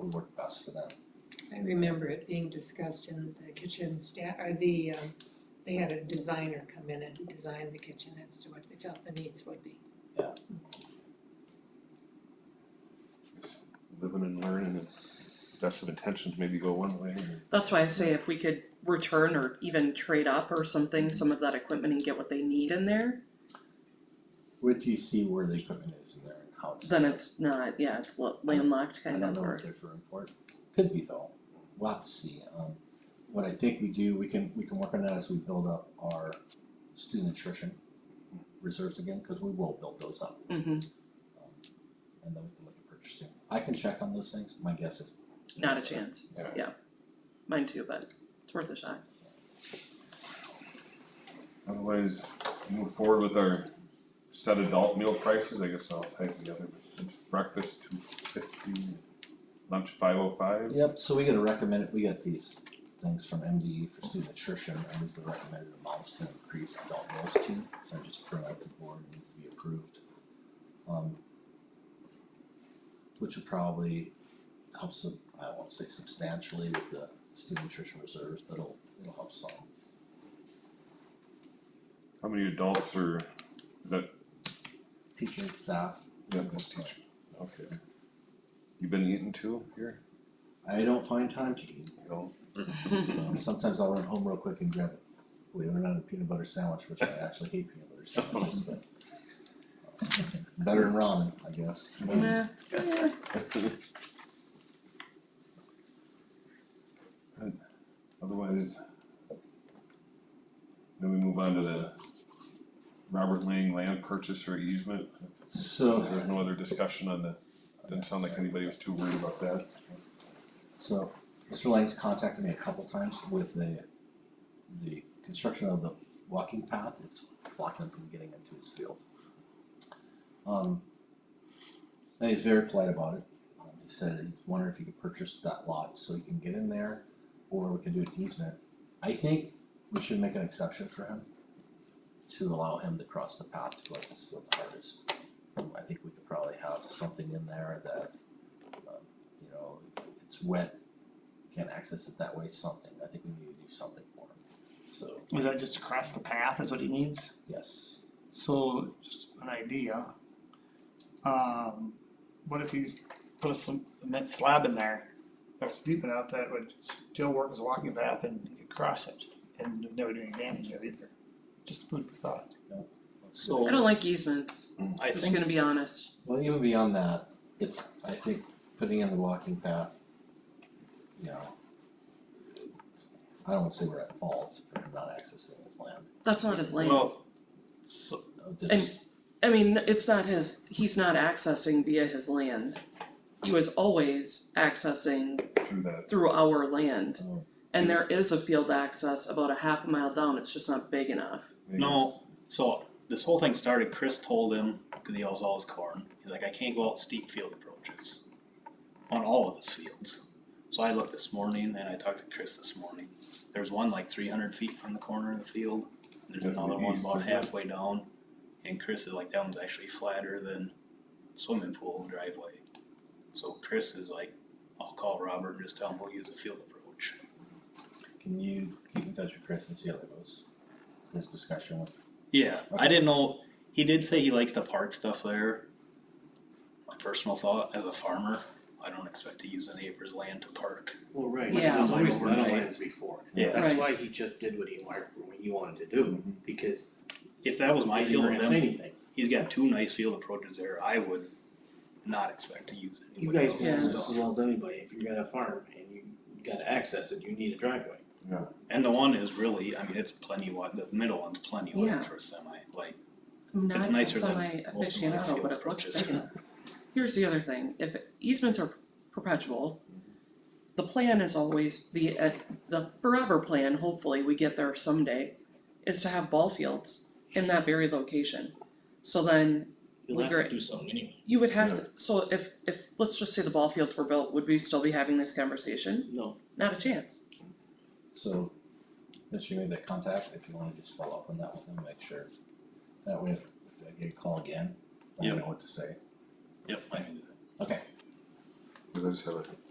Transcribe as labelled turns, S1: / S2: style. S1: would work best for them.
S2: I remember it being discussed in the kitchen staff, or the, um, they had a designer come in and design the kitchen as to what they felt the needs would be.
S3: living and learning and best of intentions maybe go one way.
S4: That's why I say if we could return or even trade up or something, some of that equipment and get what they need in there,
S1: Wait till you see where the equipment is in there and how it's.
S4: then it's not, yeah, it's lo- landlocked
S1: I
S4: kind
S1: don't
S4: of
S1: know if
S4: or.
S1: there's room for it, could be though, we'll have to see, um, what I think we do, we can, we can work on that as we build up our student nutrition reserves again, cause we will build those up,
S4: Mhm.
S1: um, and then we can look at purchasing. I can check on those things, my guess is,
S4: not a chance.
S3: Yeah.
S4: Mine too, but it's worth a shot.
S3: Otherwise, move forward with our set adult meal prices, I guess I'll type the other, breakfast two fifty, lunch five oh five.
S1: yep, so we gotta recommend, if we get these things from MDE for student nutrition, and these are the recommended amounts to increase adult meals to, so I just bring up the board, it needs to be approved. Um, which would probably help some, I won't say substantially with the student nutrition reserves, but it'll, it'll help some.
S3: How many adults are, is that,
S1: Teachers, staff.
S3: yeah, that's teacher, okay. You been eating too here?
S1: I don't find time to eat,
S3: No.
S1: Um, sometimes I'll run home real quick and grab it, believe it or not, a peanut butter sandwich, which I actually hate peanut butter sandwiches, but. uh, Better than ramen, I guess.
S4: Nah, yeah.
S3: Otherwise. Then we move on to the Robert Lang land purchase or easement,
S1: So.
S3: There was no other discussion on the, didn't sound like anybody was too worried about that.
S1: So, Mr. Lang's contacted me a couple times with the, the construction of the walking path, it's blocking him from getting into his field. Um, and he's very polite about it, um, he said, he wondered if he could purchase that lot so he can get in there, or we can do an easement. I think we should make an exception for him, to allow him to cross the path to go to his field to harvest. Um, I think we could probably have something in there that, um, you know, if it's wet, can't access it that way, something, I think we need to do something for him, so,
S5: Is that just across the path is what he needs?
S1: yes.
S5: So, just an idea. Um, what if you put a cement slab in there that's deep enough that it would still work as a walking path and you could cross it and it would never do any damage to it either? Just food for thought.
S1: So.
S4: I don't like easements,
S6: I
S4: just
S6: think,
S4: gonna be honest.
S1: Well, even beyond that, it's, I think, putting in the walking path, you know. I don't wanna say we're at fault for not accessing his land,
S4: That's not his land.
S6: well, so,
S1: Uh, this,
S4: I mean, it's not his, he's not accessing via his land. He was always accessing
S3: through that.
S4: through our land.
S1: Oh.
S4: And there is a field access about a half a mile down, it's just not big enough.
S6: No. so this whole thing started, Chris told him, cause he owns all his corn, he's like, I can't go out steep field approaches. On all of his fields, so I looked this morning and I talked to Chris this morning, there's one like three hundred feet from the corner of the field. and There's
S3: That's
S6: another
S3: the
S6: one
S3: east,
S6: about
S3: isn't it?
S6: halfway down, and Chris is like, that one's actually flatter than swimming pool driveway. So Chris is like, I'll call Robert and just tell him we'll use a field approach.
S1: can you keep in touch with Chris and see how that goes? This discussion with,
S6: Yeah,
S1: Okay.
S6: I didn't know. He did say he likes the park stuff there. My personal thought as a farmer, I don't expect to use a neighbor's land to park.
S7: Well, right,
S4: Yeah.
S7: there's always
S6: Overnight.
S7: wetlands before,
S6: Yeah,
S7: that's
S4: Right.
S7: why he just did what he wanted, what he wanted to do,
S1: Mm-hmm.
S7: because
S6: if that was my
S7: they didn't
S6: field,
S7: really say
S6: then
S7: anything.
S6: he's got two nice field approaches there. I would not expect to use it.
S7: You guys know
S4: Yeah.
S7: this as well as anybody, if you're gonna farm and you gotta access it, you need a driveway.
S6: And the one is really, I mean, it's plenty wide. The middle one's plenty wide
S4: Yeah.
S6: for a semi. Like,
S4: I'm
S6: It's
S4: not
S6: nicer than
S4: semi
S6: most of my
S4: aficionado,
S6: field
S4: but it looks
S6: approaches.
S4: big enough. Here's the other thing, if easements are perpetual, the plan is always the, uh, the forever plan, hopefully we get there someday, is to have ball fields in that very location. So then
S7: You'll have
S4: Well,
S7: to do
S4: great.
S7: something anyway.
S4: You would have to, so if, if, let's just say the ball fields were built, would we still be having this conversation?
S7: No.
S4: Not a chance.
S1: so, since you made that contact, if you wanna just follow up on that with him, make sure. That way, if I get a call again, I
S6: Yep.
S1: know what to say,
S6: yep, I mean,
S1: okay,
S3: Cause I just have a